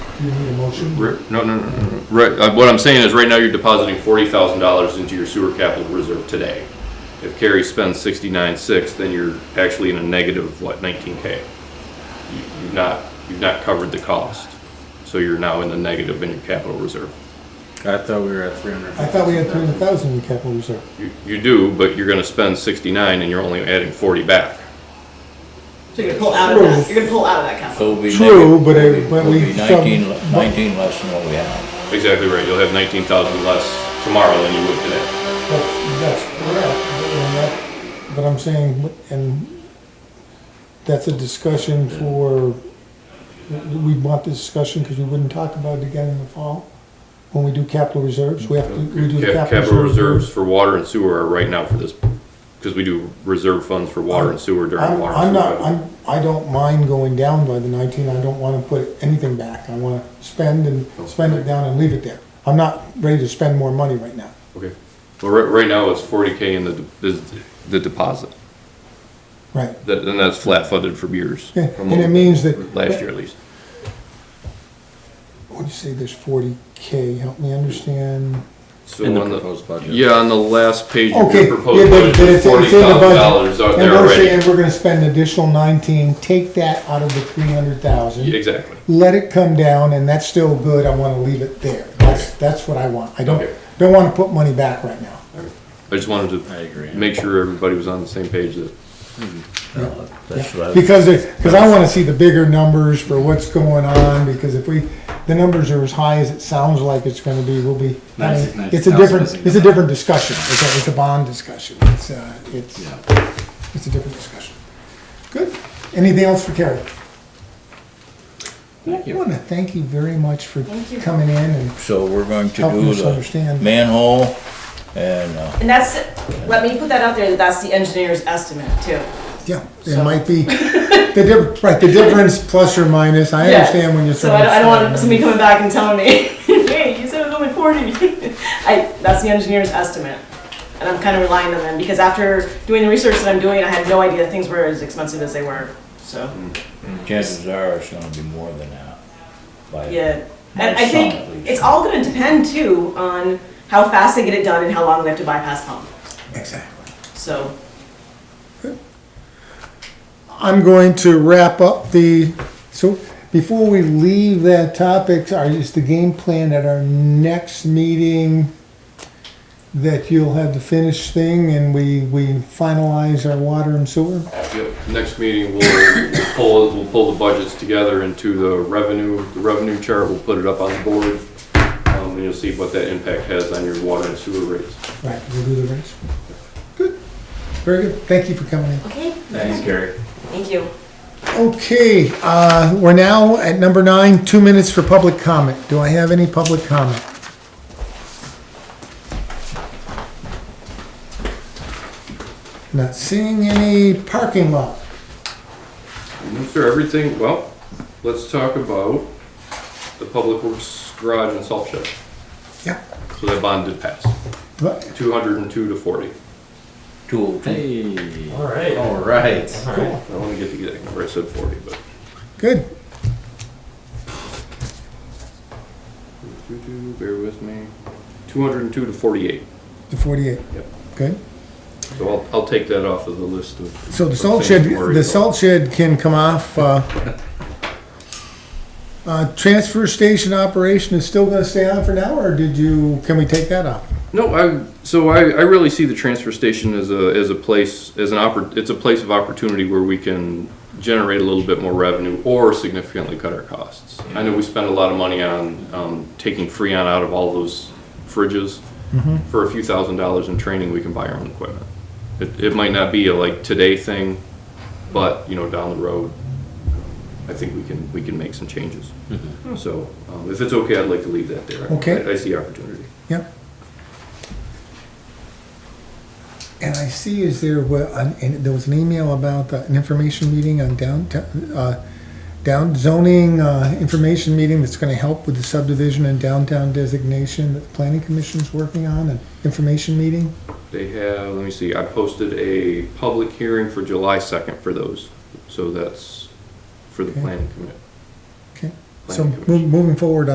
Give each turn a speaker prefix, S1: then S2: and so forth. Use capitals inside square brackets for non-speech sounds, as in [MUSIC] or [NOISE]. S1: You need a motion?
S2: Ri- No, no, no, no, no. Right, uh, what I'm saying is, right now, you're depositing forty thousand dollars into your sewer capital reserve today. If Kerry spends sixty-nine six, then you're actually in a negative, what, nineteen K? You've not, you've not covered the cost, so you're now in the negative in your capital reserve.
S3: I thought we were at three hundred.
S1: I thought we had three hundred thousand in capital reserve.
S2: You, you do, but you're gonna spend sixty-nine and you're only adding forty back.
S4: So you're gonna pull out of that, you're gonna pull out of that capital.
S5: So
S1: Oh.
S5: it'll be.
S1: True,
S5: negative.
S1: but I-
S5: It'll be-
S1: but
S5: it'll be
S1: we- some-
S5: Nineteen, le- nineteen less than what we have.
S2: Exactly right, you'll have nineteen thousand less tomorrow than you would today.
S1: That's, that's correct. but I'm not- But I'm saying, and that's a discussion for, we want this discussion because we wouldn't talk about it again in the fall when we do capital reserves. We have to, we do the
S2: Cap-
S1: capital reserves.
S2: reserves for water and sewer are right now for this, because we do reserve funds for water and sewer during
S1: I'm,
S2: water.
S1: I'm
S2: and sewer
S1: not,
S2: budget.
S1: I'm, I don't mind going down by the nineteen, I don't wanna put anything back, I wanna spend and
S2: Oh,
S1: spend it down and leave it there. I'm not ready to spend more money right now.
S2: Okay, well, right, right now it's forty K in the, de- is the deposit,
S1: Right.
S2: that, and that's flat funded for years.
S1: Yeah,
S2: from
S1: And it means that,
S2: Last year at least,
S1: what do you say, there's forty K, help me understand.
S2: so
S3: In the
S2: on the,
S3: proposed budget.
S2: yeah, on the last page of
S1: Okay,
S2: your
S1: yeah, but
S2: proposed
S1: but
S2: budget,
S1: it's,
S2: forty
S1: it's in the
S2: thousand dollars
S1: budget.
S2: out
S1: And
S2: there
S1: we're
S2: already.
S1: saying we're gonna spend an additional nineteen, take that out of the three hundred
S2: Yeah,
S1: thousand,
S2: Exactly,
S1: let it come down, and that's still good, I wanna leave it there. That's, that's what I want, I don't,
S2: Okay.
S1: don't wanna put money back right now.
S2: I just wanted
S3: I
S2: to
S3: agree.
S2: make sure everybody was on the same page that
S5: No, That's what I was-
S1: Because, because I want to see the bigger numbers for what's going on, because if we, the numbers are as high as it sounds like it's gonna be, we'll be, I mean, it's a different, it's a different discussion. It's a, it's a bond discussion. It's, uh, it's, it's a different discussion. Good. Anything else for Carrie?
S3: Thank
S1: I
S3: you.
S1: want to thank you very much for
S4: Thank you.
S1: coming in and
S5: so we're going to
S1: helping
S5: do
S1: us
S5: the
S1: understand.
S5: manhole and, uh,
S4: And that's, let me put that out there, that that's the engineer's estimate too.
S1: Yeah, there might
S4: [LAUGHS]
S1: be, the diff, right, the difference plus or minus. I
S4: Yeah.
S1: understand when you're.
S4: So I don't, I don't
S1: throwing
S4: want
S1: stuff in.
S4: somebody coming back and telling me, [LAUGHS] hey, you said it was only forty. [LAUGHS] I, that's the engineer's estimate. And I'm kind of relying on them, because after doing the research that I'm doing, I had no idea things were as expensive as they were, so,
S5: chances are it's gonna be more than that. by-
S4: yeah. And I
S5: Some
S4: think
S5: at least.
S4: it's all gonna depend too on how fast they get it done and how long they have to bypass pump,
S1: Exactly.
S4: so.
S1: I'm going to wrap up the, so before we leave that topic, are, is the game plan at our next meeting that you'll have the finished thing and we, we finalize our water and sewer?
S2: Yep, next meeting, we'll, we'll pull, we'll pull the budgets together into the revenue, the revenue chart, we'll put it up on the board. Um, and you'll see what that impact has on your water and sewer rates.
S1: Right, we'll do the rest. Good, very good, thank you for coming in.
S4: Okay,
S3: Thanks, Gary.
S4: thank you.
S1: Okay, uh, we're now at number nine, two minutes for public comment. Do I have any public comment? Not seeing any parking lot.
S2: No, Sir, everything, well, let's talk about the Public Works Garage and Salt Shed.
S1: Yeah.
S2: So that bond did pass,
S1: But-
S2: two hundred and two to forty.
S5: Two oh two.
S3: Hey.
S6: All right.
S3: All right.
S6: All
S2: I
S6: right.
S2: don't wanna get the exact number, I said forty, but.
S1: Good.
S2: Bear with me, two hundred and two to forty-eight.
S1: The forty-eight.
S2: Yep.
S1: Good.
S2: So I'll, I'll take that off of the list of.
S1: So the
S2: of
S1: salt
S2: things
S1: shed,
S2: to worry
S1: the
S2: about.
S1: salt shed can come off,
S2: [LAUGHS]
S1: uh, uh, transfer station operation is still gonna stay on for now, or did you, can we take that off?
S2: No, I, so I, I really see the transfer station as a, as a place, as an oppor, it's a place of opportunity where we can generate a little bit more revenue or significantly cut our costs. I know we spend a lot of money on, um, taking Freon out of all those fridges. For a few thousand dollars in training, we can buy our own equipment. It, it might not be a like today thing, but, you know, down the road, I think we can, we can make some changes. So, um, if it's okay, I'd like to leave that there.
S1: Okay.
S2: I- I see opportunity.
S1: Yep. And I see, is there, well, an- and there was an email about the- an information meeting on downtown, uh, down zoning, uh, information meeting that's gonna help with the subdivision and downtown designation that the planning commission's working on, an information meeting?
S2: They have, let me see, I posted a public hearing for July second for those, so that's for the
S1: Okay.
S2: planning committee.
S1: Okay. So
S2: Planning Commission.
S1: mo- moving forward